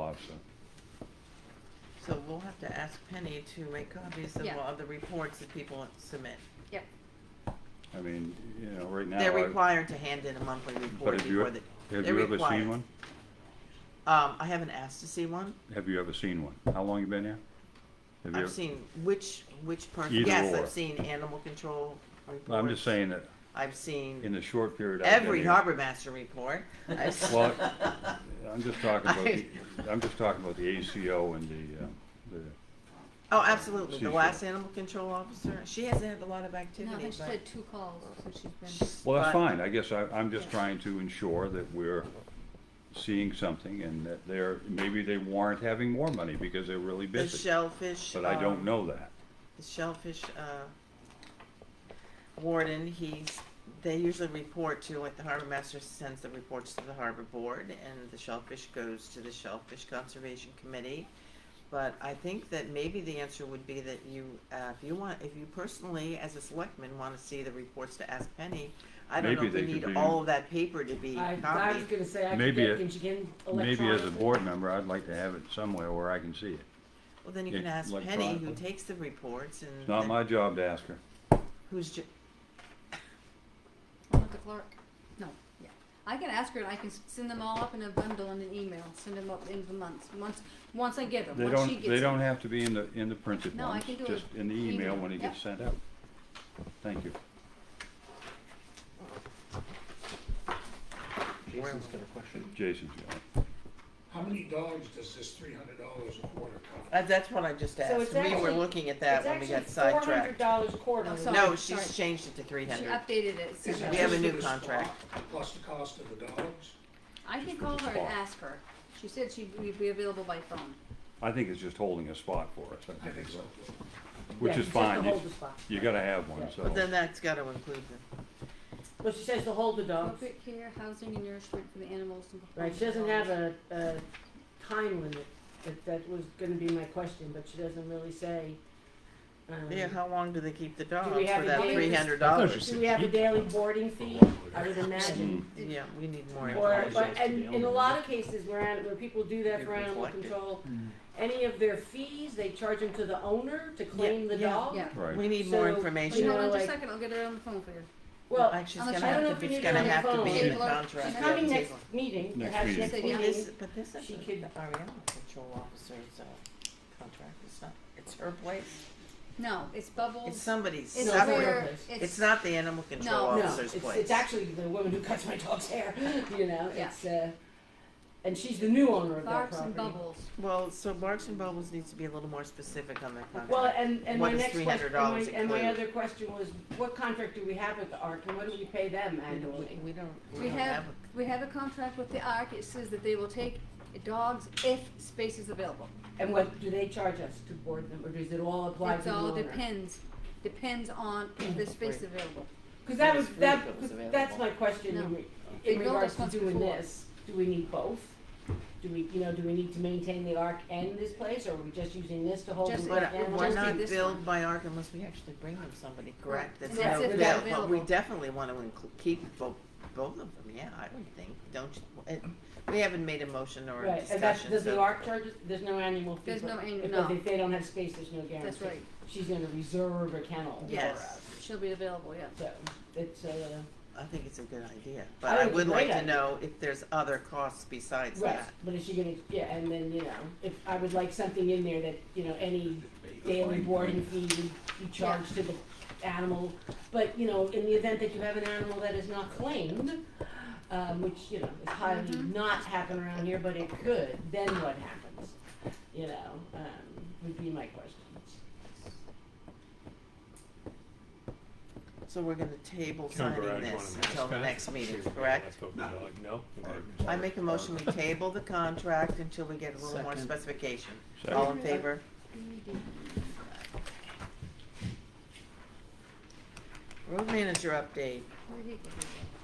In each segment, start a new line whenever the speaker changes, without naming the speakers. option.
So we'll have to ask Penny to make copies of
Yeah.
all the reports that people submit.
Yep.
I mean, you know, right now.
They're
I-
required to hand in a monthly
But
report
have you, e-,
before
have
the,
you
they're
ever
required.
seen one?
Um, I haven't asked to see one.
Have you ever seen one? How long you been here? Have you-
I've seen which, which person,
Either
yes,
or.
I've seen animal control reports.
I'm just saying that
I've
in
seen
the short period. I've been
every
here-
harbor master report. I've s-
Well, I'm just talking about,
I-
the- I'm just talking about the ACO and the, uh, the,
Oh, absolutely. The
She's
last
sure.
animal control officer, she hasn't had a lot of
No, I
activity,
think she
but
had two calls, so she's been,
well, that's
But-
fine. I guess I, I'm just
Yeah.
trying to ensure that we're seeing something and that they're, maybe they warrant having more money because they're really
the
busy.
shellfish.
But I don't
um,
know that.
the shellfish uh, warden, he's, they usually report to, like the harbor master sends the reports to the harbor board and the shellfish goes to the shellfish conservation committee. But I think that maybe the answer would be that you, uh, if you want, if you personally, as a selectman, wanna see the reports to ask Penny, I don't know
Maybe
if we
they could
need
be-
all of that paper to be
I,
copied.
I was gonna say, I could
Maybe
get,
it-
can you get
uh,
electronic?
Maybe as a board member, I'd like to have it somewhere where I can see it.
Well, then you
Yeah,
can ask
like
Penny, who
Chronicle.
takes the reports and.
It's not
and
my job to ask her.
Who's ju-
I'm not the clerk. No, yeah. I can ask her and I can s- send them all up in a bundle in an email, send them up in the months, once, once I get them,
They
once she
don't,
gets.
they
them.
don't have to be in the, in the printed
No, I
ones,
can do
just
it
in the email when it
email,
gets sent out. Thank you.
Jason's got a question.
Jason's got it.
How many dogs does this three hundred dollars a quarter cover?
Uh, that's what I just asked.
it's
we were
actually-
looking at that when we got sidetracked.
It's actually four hundred dollars quarterly.
Oh, sorry.
No, she's
sorry.
changed it to three
She
hundred.
updated it,
Is
sent
it
We have
just
a
her.
new
for the spot
contract.
Plus the cost of the dogs?
I can
Just
call
put the
her and
spot.
ask her. She said she'd be- be available by phone.
I think it's just holding a spot for us, I
I
think
think
is
so.
what- which
Yeah,
is
she says to
fine. You-
hold the spot.
You gotta have one,
Yeah.
so.
But then that's gotta include them.
Well, she says to hold the dogs,
Appropriate care, housing and nourishment for the animals and.
right, she doesn't have a, a time limit, that, that was gonna be my question, but she doesn't really say. um,
Yeah, how long do they keep the dogs
we have
for
a
that
date?
three hundred
I thought you
dollars?
said-
Do we have a daily boarding fee, I would imagine,
Mm,
Yeah, we need more
or,
information.
but, and in a lot of cases where, an- where people do that for
They're
animal
reflected.
control, any of their fees, they charge them to the owner to claim the
yeah,
dog?
Yeah.
Right,
We need more
So,
Wait,
information.
you
hold Oh, on
know,
just a
like-
second, I'll get her on the phone for you.
Well,
Well,
she's
unless-
gonna
I don't
know
have
if
to,
we
it's
need it
gonna
on the
have to
phone.
be in the
Table or-
contract.
she's
coming
Yeah.
next meeting,
Next
perhaps
meeting.
next
So,
Well,
yeah.
meeting,
this, but this is,
She could-
our animal control officer's, uh, contract, it's not, it's her place,
No, it's Bubbles.
it's somebody's
It's
not
separate-
her
where,
place.
It's not the animal control
No,
No,
officer's
it's,
place.
it's actually the woman who cuts my dog's hair, you know,
Yeah.
it's, uh, and she's the new owner of that
Barks
property.
and Bubbles.
Well, so Barks and Bubbles needs to be a little more specific on their contract.
Well, and, and my
What does
next question,
$300
and my, and my
include?
other question was, what contract do we have with the ARC, and what do we pay them
We don't-
annually?
We don't, we
We
don't
have,
have a
we have a contract with the ARC, it says that they will take dogs if space is available.
And what do they charge us to board them, or does it all apply to
It's
the
all
owner?
depends, depends on if the space is available.
Cause that
If
was,
it's free,
that,
if it was
'cause that's
available.
my question in
No.
re-
They
in
built
regards
us
to
once
doing
before.
this, do we need both? Do we, you know, do we need to maintain the ARC and this place, or are we just using this to hold
Just-
the
But
But
ARC
it-
animals?
we're
just
not
do this
billed
one.
by ARC unless we actually bring them somebody, correct?
Correct.
That's
And that's
not
if
available,
they're
but we
available.
definitely wanna inclu- keep both, both of them, yeah, I would think, don't you? it- We haven't made a motion or a
Right, and that's,
discussion,
does the
so.
ARC charge, us- there's no annual fee?
There's
but-
no annu-
if-
no.
If they don't have space, there's no guarantee.
That's right,
She's gonna reserve a kennel for
Yes.
us,
she'll be available, yeah.
so, it's, uh,
I think it's a good idea, but
think
I
it's a
would like
great
to
idea.
know if there's other costs besides
right,
that.
but is she gonna, yeah, and then, you know, if, I would like something in there that, you know, any daily boarding fee you, you charge to the animal. But, you know, in the event that you have an animal that is not claimed, um, which, you know, is highly
Mhm.
not happen around here, but it could, then what happens? You know, um, would be my question.
So we're gonna table
Can I go
signing
around? You
this
wanna
until the
pass?
next meeting,
Sure.
correct?
Like, No.
I make a motion, we table the contract until we get a little more
Second.
specification.
Second.
All in favor? Road manager update.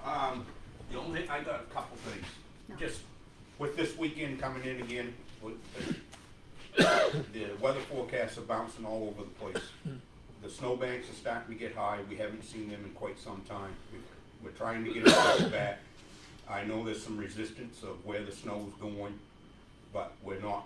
Um, the only, I got a couple things.
No.
Just with this weekend coming in again, with, the weather forecasts are bouncing all over the place. The snowbanks are starting to get high. We haven't seen them in quite some time. We- We're trying to get them back. I know there's some resistance of where the snow's going, but we're not